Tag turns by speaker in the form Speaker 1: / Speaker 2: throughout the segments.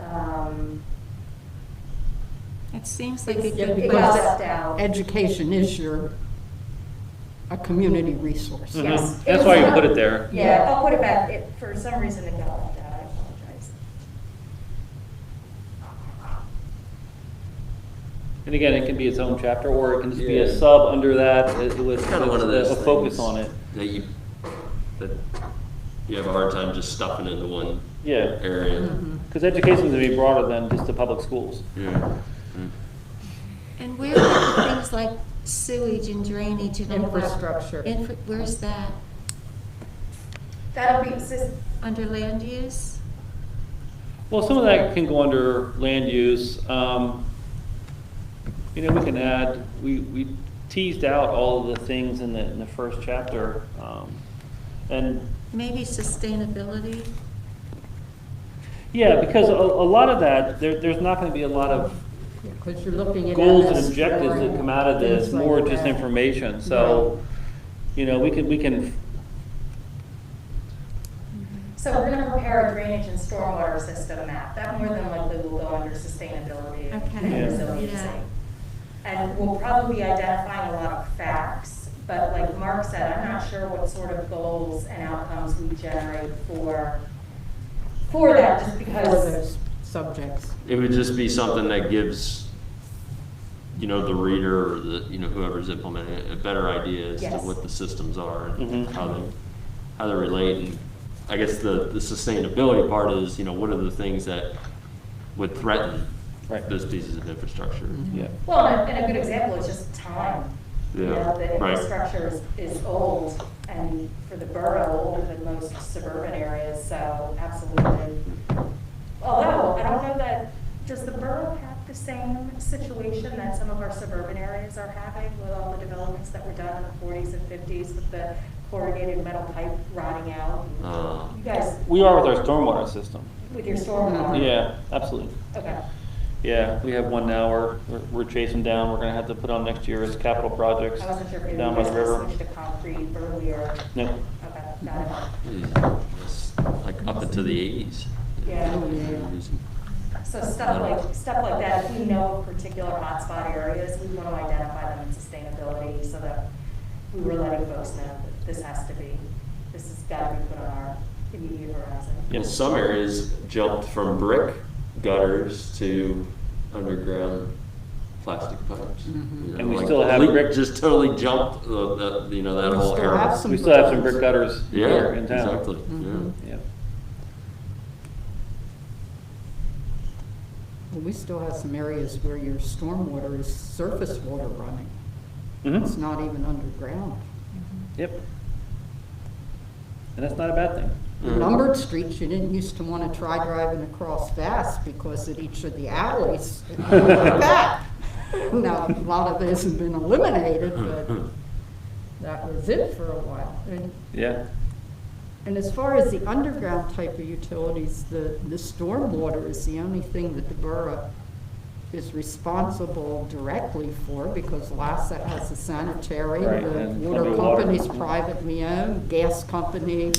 Speaker 1: Um,
Speaker 2: Seems like a
Speaker 1: It's
Speaker 2: good
Speaker 1: difficult.
Speaker 2: place.
Speaker 1: Crossed out.
Speaker 3: Education is your, a community resource.
Speaker 4: Mhm.
Speaker 1: Yes.
Speaker 4: That's why you put it there.
Speaker 1: Yeah, I'll put it back, it, for some reason it got left out, I apologize.
Speaker 4: And again, it can be its own chapter, or it can just be a
Speaker 5: Yeah.
Speaker 4: sub under that uh, with,
Speaker 5: Kind of one of
Speaker 4: with
Speaker 5: those
Speaker 4: a focus
Speaker 5: things
Speaker 4: on it.
Speaker 5: That you, that you have a hard time just stuffing into one
Speaker 4: Yeah,
Speaker 5: area.
Speaker 4: because education is to be broader than just the public schools.
Speaker 5: Yeah.
Speaker 2: And where are the things like sewage and drainage and all that?
Speaker 3: Infrastructure.
Speaker 2: Infra- Where's that?
Speaker 1: That'll be, sis-
Speaker 2: Under land use?
Speaker 4: Well, some of that can go under land use. Um, You know, we can add, we, we teased out all of the things in the, in the first chapter. um, And
Speaker 2: Maybe sustainability?
Speaker 4: Yeah, because a, a lot of that, there, there's not gonna be a lot of
Speaker 3: Because you're looking at.
Speaker 4: goals and
Speaker 3: MS
Speaker 4: objectives that
Speaker 3: scoring,
Speaker 4: come out of this,
Speaker 3: things like
Speaker 4: more just
Speaker 3: that.
Speaker 4: information, so, you know, we can, we can,
Speaker 1: so we're gonna prepare a drainage and stormwater system map, that more than likely will go under sustainability
Speaker 2: Okay.
Speaker 4: Yeah.
Speaker 1: and resiliency.
Speaker 2: Yeah.
Speaker 1: And we'll probably be identifying a lot of facts, but like Mark said, I'm not sure what sort of goals and outcomes we generate for, for that, just
Speaker 3: For
Speaker 1: because
Speaker 3: those subjects.
Speaker 5: It would just be something that gives, you know, the reader or the, you know, whoever's implementing it, a better idea as to
Speaker 1: Yes.
Speaker 5: what the systems are and
Speaker 4: Mhm.
Speaker 5: how they, how they relate. And I guess the, the sustainability part is, you know, what are the things that would threaten
Speaker 4: Right.
Speaker 5: those pieces of infrastructure?
Speaker 4: yeah.
Speaker 1: Well, and a- and a good example is just time. You
Speaker 5: Um, Yeah,
Speaker 1: know, the
Speaker 5: right.
Speaker 1: infrastructure is, is old, and for the borough, older than most suburban areas, so absolutely. Although, I don't know that, does the borough have the same situation that some of our suburban areas are having with all the developments that were done in the forties and fifties with the corrugated metal pipe rotting out?
Speaker 5: Uh,
Speaker 1: You guys,
Speaker 4: We are with our stormwater system,
Speaker 1: with your stormwater?
Speaker 4: yeah, absolutely.
Speaker 1: Okay,
Speaker 4: Yeah, we have one now, we're, we're- we're chasing down, we're gonna have to put on next year as capital projects
Speaker 1: I wasn't sure if you
Speaker 4: down by the
Speaker 1: guys
Speaker 4: river.
Speaker 1: switched to concrete earlier.
Speaker 4: No,
Speaker 1: Okay, got it.
Speaker 5: yeah, it's Hmm. Like up into the eighties.
Speaker 1: Yeah. So stuff like, stuff like that, if we know particular hotspot areas, we want to identify them in sustainability so that we were letting folks know that this has to be, this has got to be put on our immediate horizon.
Speaker 5: In some areas, jumped from brick gutters to underground plastic pipes.
Speaker 3: Mm-hmm.
Speaker 5: You know,
Speaker 4: And we
Speaker 5: like,
Speaker 4: still have
Speaker 5: leak
Speaker 4: brick-
Speaker 5: Just totally jumped the, the, you know, that
Speaker 3: We
Speaker 5: whole
Speaker 3: still
Speaker 5: area.
Speaker 3: have some-
Speaker 4: we still have some brick gutters
Speaker 5: Yeah,
Speaker 4: here in town.
Speaker 5: exactly, yeah.
Speaker 3: Mhm.
Speaker 4: Yeah.
Speaker 3: Well, we still have some areas where your stormwater is surface water running. It's
Speaker 4: Mhm.
Speaker 3: not even underground.
Speaker 4: yep. And that's not a bad thing.
Speaker 5: Mhm.
Speaker 3: Numbered streets, you didn't used to want to try driving across Bass because at each of the alleys, it went like that. Now, a lot of this has been eliminated, but that was it for a while. And
Speaker 4: Yeah,
Speaker 3: And as far as the underground type of utilities, the, the stormwater is the only thing that the borough is responsible directly for, because Lassa has a sanitary,
Speaker 4: Right,
Speaker 3: the
Speaker 4: and
Speaker 3: water
Speaker 4: Columbia Water.
Speaker 3: company's privately owned, gas company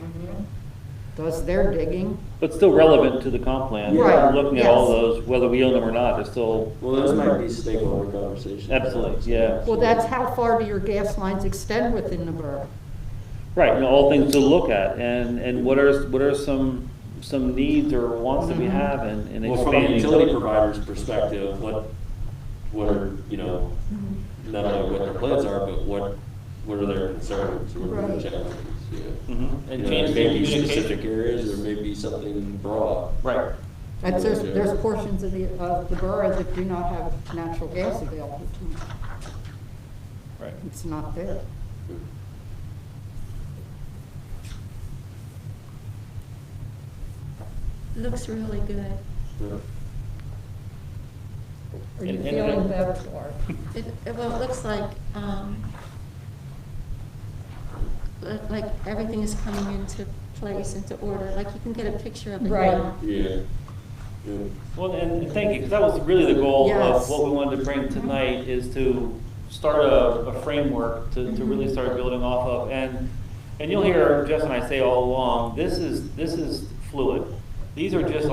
Speaker 4: Mm-hmm.
Speaker 3: does their digging.
Speaker 4: but still relevant to the comp plan.
Speaker 3: Right,
Speaker 4: Looking at all
Speaker 3: yes.
Speaker 4: those, whether we own them or not, it's still
Speaker 5: Well, those might be stakeholder conversations.
Speaker 4: Absolutely, yeah.
Speaker 3: Well, that's how far do your gas lines extend within the borough?
Speaker 4: Right, and all things to look at, and, and what are, what are some, some needs or wants that we
Speaker 3: Mm-hmm.
Speaker 4: have and and
Speaker 5: Well, from a
Speaker 4: expanding.
Speaker 5: utility provider's perspective, what, what are, you know,
Speaker 3: Mm-hmm.
Speaker 5: not only what their plans are, but what, what are their concerns, what are
Speaker 3: Right.
Speaker 5: their challenges, yeah.
Speaker 4: Mhm.
Speaker 5: You know, Maybe specific areas, or maybe something broad.
Speaker 4: Right,
Speaker 3: That's, there's, there's portions of the, of the borough that do not have natural gas available to them.
Speaker 4: right.
Speaker 3: It's not there.
Speaker 2: Looks really good.
Speaker 5: Yeah.
Speaker 3: Are you
Speaker 4: And- and-
Speaker 3: feeling better, Laura?
Speaker 2: It, it- well, it looks like, um, look like everything is coming into place, into order, like you can get a picture of it
Speaker 3: Right.
Speaker 2: now.
Speaker 5: Yeah. Yeah.
Speaker 4: Well, and thank you, because that was really the goal of
Speaker 3: Yes.
Speaker 4: what we wanted to bring tonight, is to start a, a framework to, to really start building off of. And, and you'll hear Jess and I say all along, this is, this is fluid. These are just